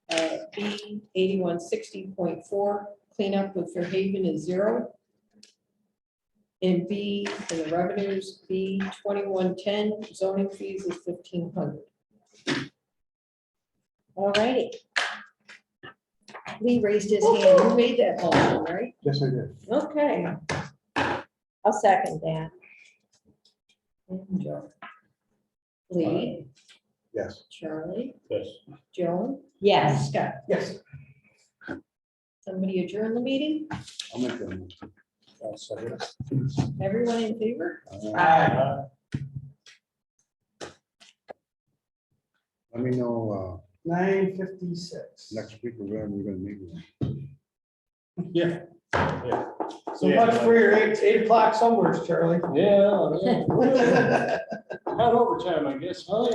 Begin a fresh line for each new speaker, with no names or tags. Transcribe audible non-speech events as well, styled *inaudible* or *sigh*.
B uh, eighty-one sixty point four, cleanup with Fairhaven is zero. And B, for the revenues, B twenty-one ten, zoning fees is fifteen hundred.
All righty. Lee raised his hand.
You made that motion, right?
Yes, I did.
Okay.
I'll second that.
And Joe. Mm-hmm. Lee,
Yes.
Charlie,
Yes.
Joan,
Yes.
Scott.
Yes.
Somebody adjourn the meeting?
I'll make Uh, that. motion. I'll second it.
Everyone in favor?
Uh,
Aye.
Let me know,
Nine fifty-six.
uh, next week, or when we're gonna meet. with
Yeah. Yeah.
So much for your eight, eight *laughs* o'clock somewheres, Charlie.
Yeah. yeah. Had overtime, I guess, huh?